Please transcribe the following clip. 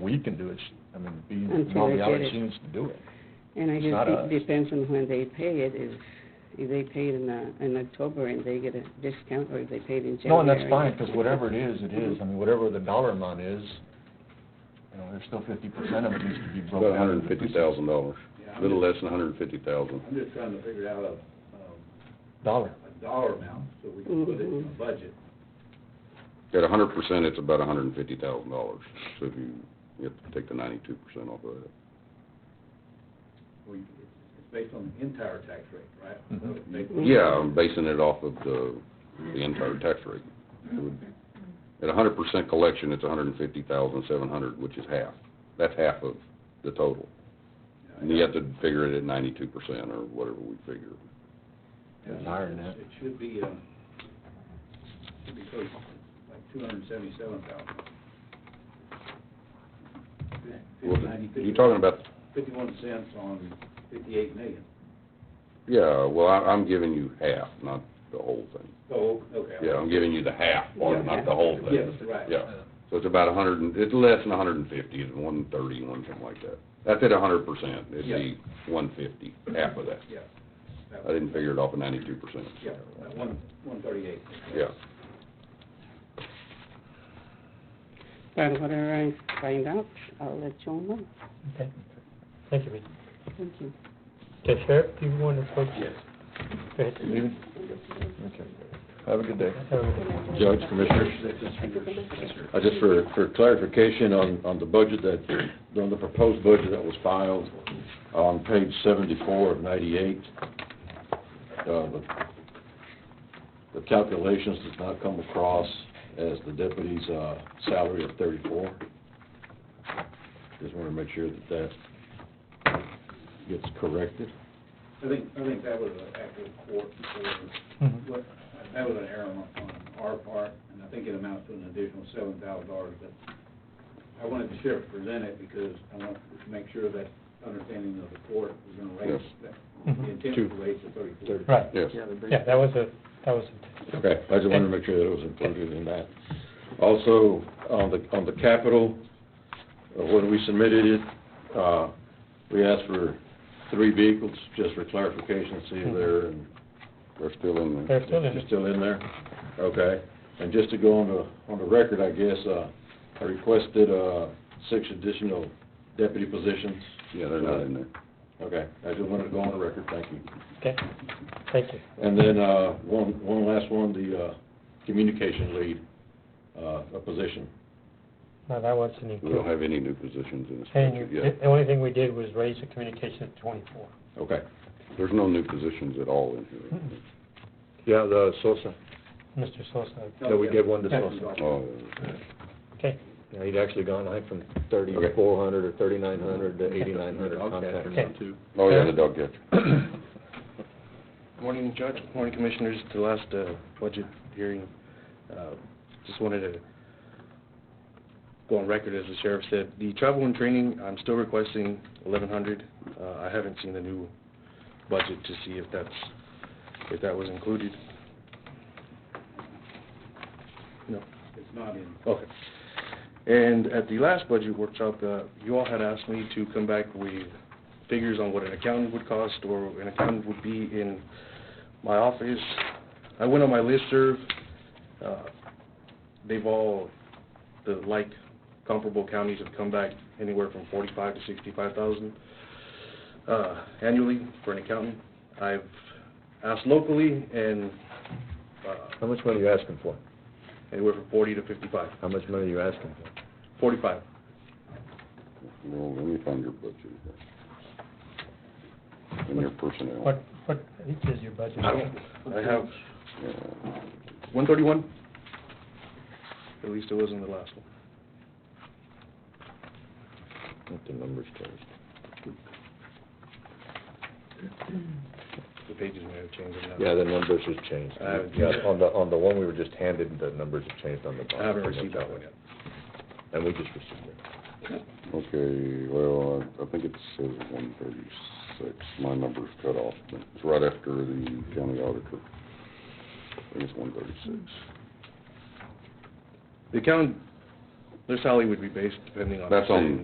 we can do it, I mean, be, Until all they the get other it. teams to do it. And I It's guess not us. it depends on when they pay it, if, if they pay it in, uh, in October and they get a discount, or if they pay it in January. No, and that's fine, because whatever it is, it is, I mean, whatever the dollar amount is, you know, there's still fifty percent of it needs to be About broken a out. hundred and fifty thousand dollars, Yeah, a I'm little just- less than a hundred and fifty thousand. I'm just trying to figure out a, um, Dollar, a dollar amount, so we can put it in the Mhm. budget. At a hundred percent, it's about a hundred and fifty thousand dollars, so if you, you have to take the ninety-two percent off of that. We, it's it's based on the entire tax rate, right? Mhm. Mm-hmm. So it Mm-hmm. makes- Yeah, I'm basing it off of the, the entire tax rate. It would- At a hundred percent collection, it's a hundred and fifty thousand, seven hundred, which is half, that's half of the total. And you have to figure it at ninety-two percent, or whatever we figure. It's higher than that. It should be, um, should be close, like two hundred and seventy-seven thousand. You're talking about Fifty-one cents on fifty-eight million. Yeah, well, I, I'm giving you half, not the whole thing. Oh, okay. Yeah, I'm giving you the half part, not the whole thing. Yes, right. Yeah, so it's about a hundred, and it's less than a hundred and fifty, it's one thirty, one something like that. That's at a hundred percent, it'd be one fifty, half of that. Yeah. That- I didn't figure it off of ninety-two percent. Yeah, that one, one thirty-eight. Yeah, But whatever I find out, I'll let you all know. Okay. Thank you, Reed. Thank you. Okay, Sheriff, do you want to talk? Yes. Go ahead. Leaving? Okay. Have a good day. Um, Judge, Commissioners, uh, just for, for clarification on, on the budget that, on the proposed budget that was filed on page seventy-four of ninety-eight, uh, the, the calculations does not come across as the deputy's, uh, salary of thirty-four. Just want to make sure that that gets corrected. I think, I think that was an actual court, or what, that was an error on, on our part, and I think it amounts to an additional seven thousand dollars, but I wanted the sheriff to present it because I want to make sure that understanding of the court is gonna raise, that, Mhm. the intent was to raise to thirty-four. Right, yes. yeah, that was a, that was Okay, I just wanted to make sure that it was included in that. Also, on the, on the capital, uh, when we submitted it, uh, we asked for three vehicles, just for clarification, see if they're, and They're still in a, there. they're still in they're it. still in there, okay? And just to go on the, on the record, I guess, uh, I requested, uh, six additional deputy positions, Yeah, they're not in there. okay? I just wanted to go on the record, thank you. Okay, thank you. And then, uh, one, one last one, the, uh, communication lead, uh, a position. No, that wasn't We don't included. have any new positions in this And budget you- yet. the only thing we did was raise the communication to twenty-four. Okay. There's no new positions at all in here. Yeah, the Sosa, Mr. Sosa, yeah, we gave one to Yeah. Sosa. Oh, okay, Yeah, he'd actually gone, I think, from thirty-four hundred or thirty-nine hundred to eighty-nine hundred contact. okay. oh, yeah, the dog catcher. Morning, Judge. Morning, Commissioners. To the last uh, budget hearing, uh, just wanted to go on record, as the sheriff said, the travel and training, I'm still requesting eleven hundred. Uh, I haven't seen the new budget to see if that's, if that was included. No. It's not in. Okay. And at the last budget workshop, uh, you all had asked me to come back with figures on what an accountant would cost or an accountant would be in my office. I went on my listserv. uh, They've all, the like comparable counties have come back anywhere from forty-five to sixty-five thousand uh, annually for an accountant. I've asked locally and uh, How much money are you asking for? anywhere from forty to fifty-five. How much money are you asking for? Forty-five. Well, let me find your budget. And your personnel. What, what each is your budget? I don't, I have Yeah. one thirty-one. At least it wasn't the last one. What the numbers tells. The pages may have changed. I'm not- Yeah, the numbers have changed. I haven't- Yeah, on the, on the one we were just handed, the numbers have changed on the bottom. I haven't received that one yet. And we just received it. Okay, well, I I think it says one thirty-six, my number's cut off, but it's right after the county auditor. I think it's one thirty-six. The account Their salary would be based depending on. That's on